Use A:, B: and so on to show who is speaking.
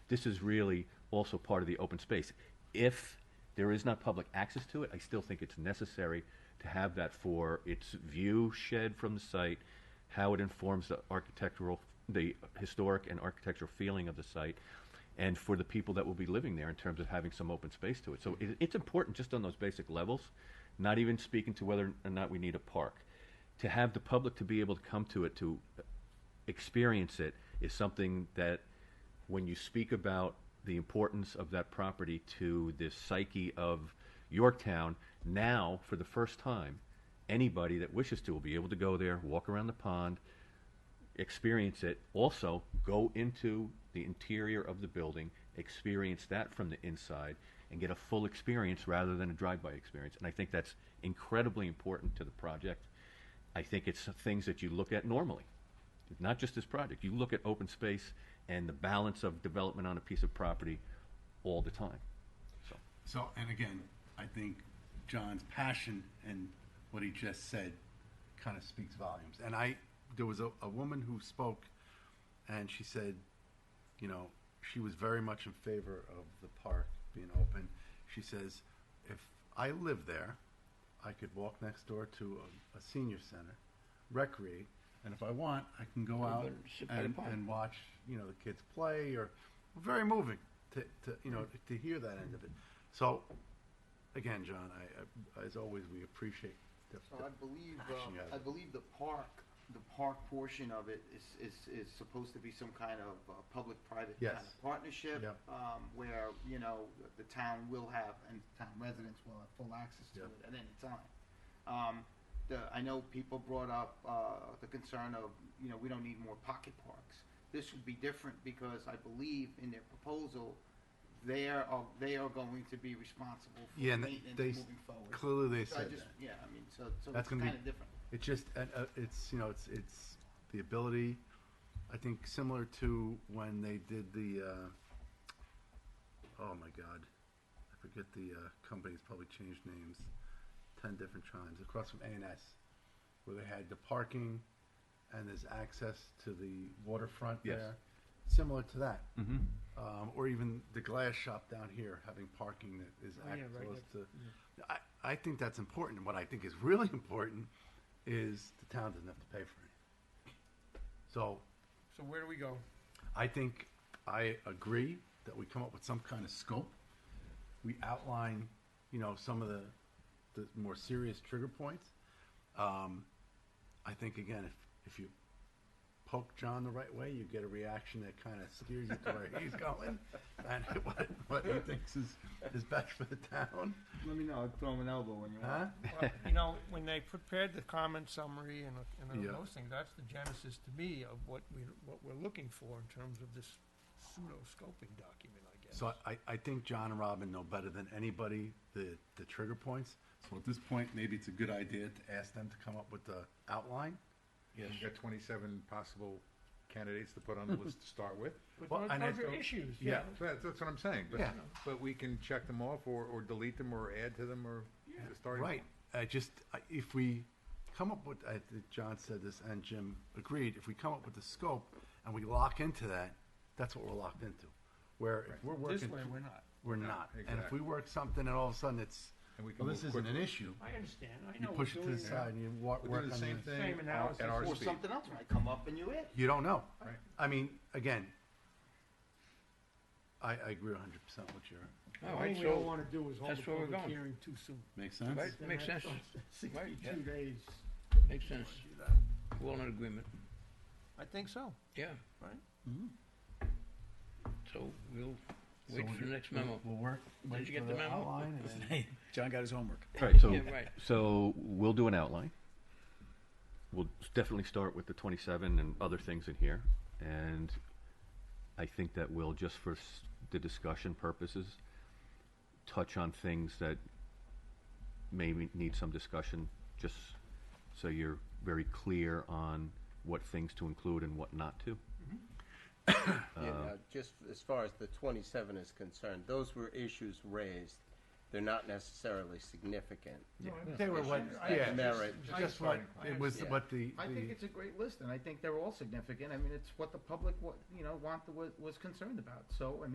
A: this is really also part of the open space. If there is not public access to it, I still think it's necessary to have that for its view shed from the site, how it informs the architectural, the historic and architectural feeling of the site, and for the people that will be living there in terms of having some open space to it. So it, it's important just on those basic levels, not even speaking to whether or not we need a park. To have the public to be able to come to it to experience it is something that when you speak about the importance of that property to the psyche of Yorktown, now for the first time, anybody that wishes to will be able to go there, walk around the pond, experience it. Also, go into the interior of the building, experience that from the inside, and get a full experience rather than a drive-by experience. And I think that's incredibly important to the project. I think it's things that you look at normally, not just this project. You look at open space and the balance of development on a piece of property all the time. So,
B: So, and again, I think John's passion and what he just said kind of speaks volumes. And I, there was a, a woman who spoke and she said, you know, she was very much in favor of the park being open. She says, if I live there, I could walk next door to a, a senior center, recreate, and if I want, I can go out
C: better sit by the
B: and,
C: park.
B: and watch, you know, the kids play or very moving to, to you know,
C: Mm-hmm.
B: to hear that end of it. So, again, John, I, I as always, we appreciate the,
C: So I believe, um,
B: Action, yeah.
C: I believe the park, the park portion of it is, is, is supposed to be some kind of uh, public-private kind
B: Yes.
C: of partnership.
B: Yep.
C: Um, where, you know, the town will have, and town residents will have full access to
B: Yep.
C: it at any time. Um, the, I know people brought up, uh, the concern of, you know, we don't need more pocket parks. This would be different because I believe in their proposal, they are, they are going to be responsible for
B: yeah, and
C: maintenance
B: they
C: moving
B: s-
C: forward.
B: clearly they
C: So I
B: said
C: just,
B: that.
C: yeah, I mean, so, so it's
B: That's gonna be-
C: kind of different.
B: It's just, uh, uh, it's, you know, it's, it's the ability, I think similar to when they did the, uh, oh my God, I forget the, uh, company's probably changed names, ten different times, across from A&S, where they had the parking and there's access to the waterfront
A: Yes.
B: there. Similar to that. Um, or even the glass shop down here having parking that is
D: Oh, yeah, right
B: access
D: next-
B: to. I, I think that's important. And what I think is really important is the town doesn't have to pay for it. So
D: So where do we go?
B: I think I agree that we come up with some kind of scope. We outline, you know, some of the, the more serious trigger points. Um, I think again, if, if you poke John the right way, you get a reaction that kind of steers you to where he's going and what, what he thinks is, is best for the town.
C: Let me know, I'll throw him an elbow when you
B: Huh?
D: Well, You know, when they prepared the comment summary and, and
B: Yeah.
D: all those things, that's the genesis to me of what we, what we're looking for in terms of this pseudo-scoping document, I guess.
B: So I, I think John and Robin know better than anybody the, the trigger points. So at this point, maybe it's a good idea to ask them to come up with the outline.
E: You've got twenty-seven possible candidates to put on the list to start with.
D: But
B: well,
D: those
B: and I
D: those are
B: don't-
D: issues,
B: yeah.
D: yeah.
E: So That's, that's what I'm saying, but,
B: Yeah.
E: but we can check them off or, or delete them or add to them or start.
B: Right. I just, I- if we come up with, I think John said this and Jim agreed, if we come up with the scope and we lock into that, that's what we're locked into. Where if we're working.
D: This way, we're not.
B: We're not. And if
E: exactly.
B: we work something and all of a sudden it's,
E: And we can
B: well, this
E: move
B: isn't an
E: quickly.
B: issue,
D: I understand, I
B: you
D: know.
B: push
D: we're
B: it to the
D: doing that.
B: side and you wa- work on
E: We're doing the same
D: Same
E: thing at our-
D: analysis.
E: at our
C: Or
E: speed.
C: something else might come up and you add.
B: You don't know.
E: Right.
B: I mean, again, I, I agree hundred percent with your.
D: All we don't wanna do is hold the
F: that's where we're
D: public
F: going.
D: hearing too soon.
B: Makes sense.
F: Right, makes sense, Right, yeah.
D: Sixty-two days.
F: makes sense. We're all in agreement,
D: I think so.
F: yeah.
D: Right.
F: So we'll wait for the next memo.
B: We'll work.
F: Did
B: wait
F: you get
B: for
F: the memo?
B: outline and then-
G: John got his homework.
A: all right, so,
F: Yeah, right.
A: so we'll do an outline. We'll definitely start with the 27 and other things in here. And I think that we'll, just for s- the discussion purposes, touch on things that maybe need some discussion, just so you're very clear on what things to include and what not to.
H: Yeah, now, just as far as the 27 is concerned, those were issues raised. They're not necessarily significant.
B: They were what,
C: I-
B: yeah,
H: Merit.
B: just- just what, it was
H: Yeah.
B: what the,
C: I think
B: the,
C: it's a great list and I think they're all significant. I mean, it's what the public, wa- you know, want, was, was concerned about. So, I mean,